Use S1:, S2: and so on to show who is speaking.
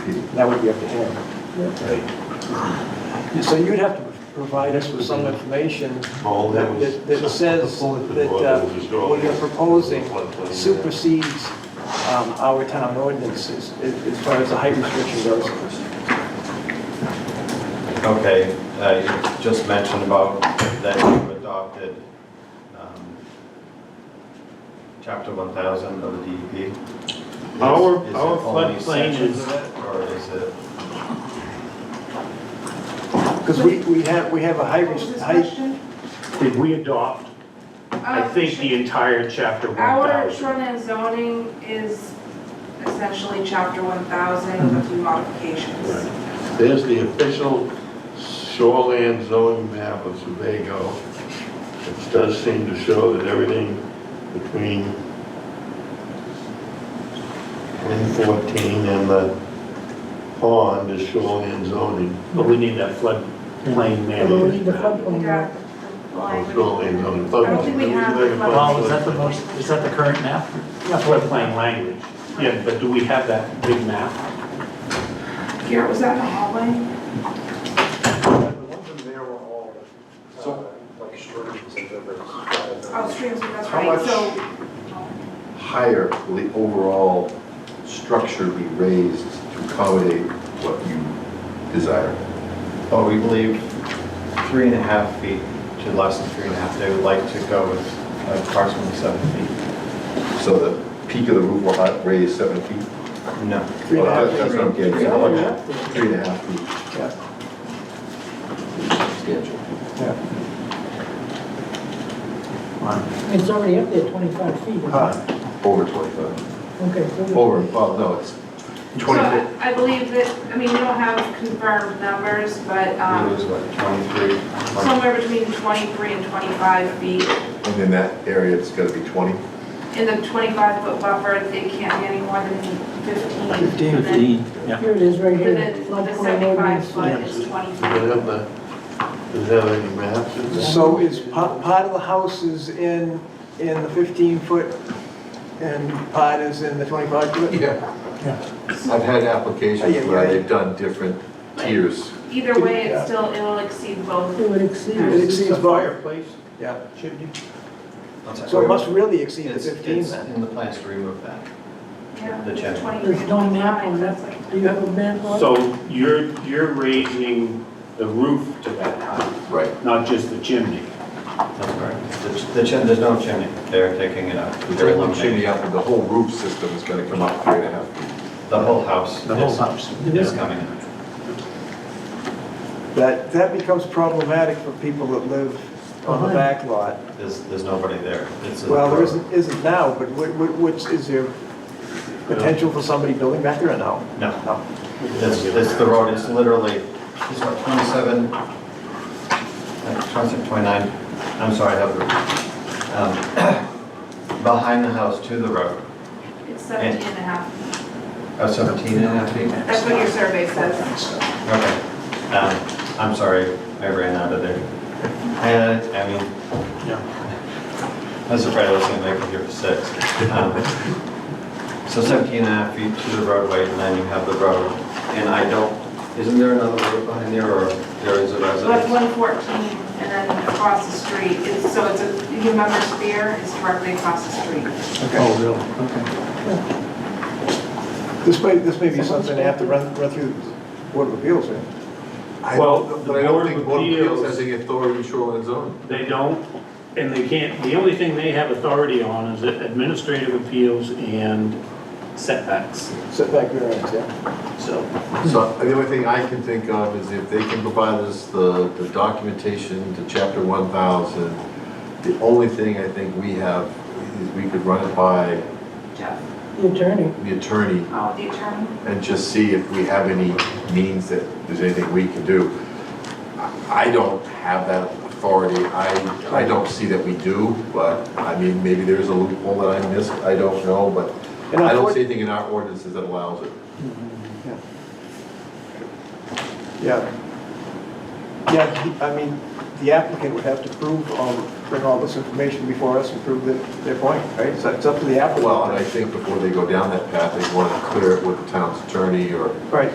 S1: That would be up to him. So you'd have to provide us with some information
S2: All Oh, that was-
S1: that that says
S2: The bulletin
S1: that
S2: board
S1: uh,
S2: was drawn.
S1: what you're proposing
S2: Floodplain.
S1: supersedes um, our town ordinances as as far as the height restriction goes.
S3: Okay, uh, you just mentioned about that you adopted um, chapter 1,000 of the DEP. Is-
S2: Our-
S3: is it
S2: our
S3: only
S2: floodplain
S3: sections
S2: is-
S3: of it, Or is it,
S1: Because we we have, we have a height, rest- height
S2: Did we adopt, I think, the entire chapter
S4: Oh. Um, Our
S2: 1,000?
S4: shoreline zoning is essentially chapter one thousand with a few modifications.
S5: There's the official shoreland zoning map of Sebago. It does seem to show that everything between 114 and the pond is shoreland zoning,
S2: But we need that floodplain
S6: Well, we need the
S2: management.
S6: floodplain
S4: We
S6: map.
S4: got the line.
S5: or shoreline zoning.
S4: I don't think we have the
S2: Well,
S4: flood.
S7: Is that the most, is that the current map?
S2: Yeah, Floodplain language. Yeah, but do we have that big map?
S4: Garrett, was that in the hallway?
S8: So, like streams and rivers.
S4: Oh, streams, that's
S8: How
S4: right,
S8: much-
S4: so
S8: Higher will the overall structure be raised to accommodate what you desire?
S3: oh, we believe three and a half feet to less than three and a half, they would like to go with approximately seven feet.
S8: So the peak of the roof will not raise seven feet?
S3: No.
S1: Three and a half
S8: That- That's what I'm getting
S1: Three
S8: at.
S1: and a half feet.
S8: Three and a half feet
S1: yeah,
S8: substantial.
S1: yeah.
S6: It's already up there, 25 feet. isn't it?
S1: Uh,
S8: Over 25.
S6: Okay, so we-
S8: Over, well, no, it's
S4: so
S8: 20 feet.
S4: I I believe that, I mean, we don't have confirmed numbers, but
S3: It
S4: um,
S3: was like 23, 20
S4: somewhere between twenty-three and twenty-five feet.
S8: And in that area, it's got to be 20.
S4: In the twenty-five foot buffer, they can't be any more than fifteen.
S1: 15
S4: and then
S7: Yeah.
S6: here it is right here.
S4: Within the
S6: floodplain
S4: seventy-five
S6: ordinance.
S4: foot is twenty
S5: Does it
S4: feet.
S5: have the, does it have any maps in there?
S1: So is, pa- part of the house is in, in the 15-foot and part is in the 25-foot?
S8: Yeah. I've had applications where they've done different tiers.
S4: Either way, it's still, it'll exceed both.
S6: It would exceed.
S1: It exceeds both,
S2: Fireplace
S1: yeah.
S2: chimney?
S1: So it must really exceed the
S3: It's-
S1: 15
S3: It's
S1: then.
S3: in the plans to remove that.
S4: Yeah,
S3: The
S4: it's
S3: chimney.
S4: 23,
S6: There's no map
S4: 25,
S6: on
S4: so it's like-
S6: that. Do you have a map on it?
S2: So you're, you're raising the roof to that height,
S8: Right.
S2: not just the chimney.
S3: That's correct. The ch- The chim, there's no chimney, they're taking it out.
S8: The whole chimney up, the whole roof system is going to come up three and a half feet.
S3: The whole house
S7: The whole
S3: is-
S7: house.
S3: is coming out.
S1: That, that becomes problematic for people that live on the back lot.
S3: There's, there's nobody there. It's a-
S1: Well, there isn't, isn't now, but what, what, what's, is there potential for somebody building back there or no?
S3: No,
S1: No.
S3: it's, it's the road, it's literally, it's what, 27, uh, 27, 29, I'm sorry, I have the, um, behind the house to the road,
S4: It's 17 and a half.
S3: uh, 17 and a half feet.
S4: That's what your survey says.
S3: Okay, um, I'm sorry, I ran out of there. And, I mean, I was afraid I was gonna make it here for six. Um, So 17 and a half feet to the roadway, and then you have the road, and I don't, isn't there another road behind there, or there is a
S4: But
S3: residence?
S4: 114 and then across the street, it's, so it's a, you remember Spear is directly across the street.
S3: Oh,
S1: Okay. This may, this may be something they have to run, run through the Board of Appeals, right?
S8: I
S2: Well,
S8: don't-
S2: the
S8: But I
S2: Board of
S8: don't think Board of Appeals
S2: Appeals-
S8: has any authority in shoreline zoning.
S2: They don't, and they can't, the only thing they have authority on is administrative appeals and setbacks,
S1: Setback variance, yeah.
S2: so.
S8: So the only thing I can think of is if they can provide us the, the documentation to chapter one thousand, the only thing I think we have is we could run it by
S4: Jeff,
S6: The attorney.
S8: the attorney
S4: oh, the attorney?
S8: and just see if we have any means that there's anything we can do. I I don't have that authority, I, I don't see that we do, but, I mean, maybe there's a loophole that I missed, I don't know, but
S1: And
S8: I don't
S1: unfor-
S8: see anything in our ordinances that allows it.
S1: Yeah. Yeah, he- I mean, the applicant would have to prove all, bring all this information before us and prove that, their point, right? So it's up to the applicant.
S8: Well, and I think before they go down that path, they want to clear it with the town's attorney or
S1: Right.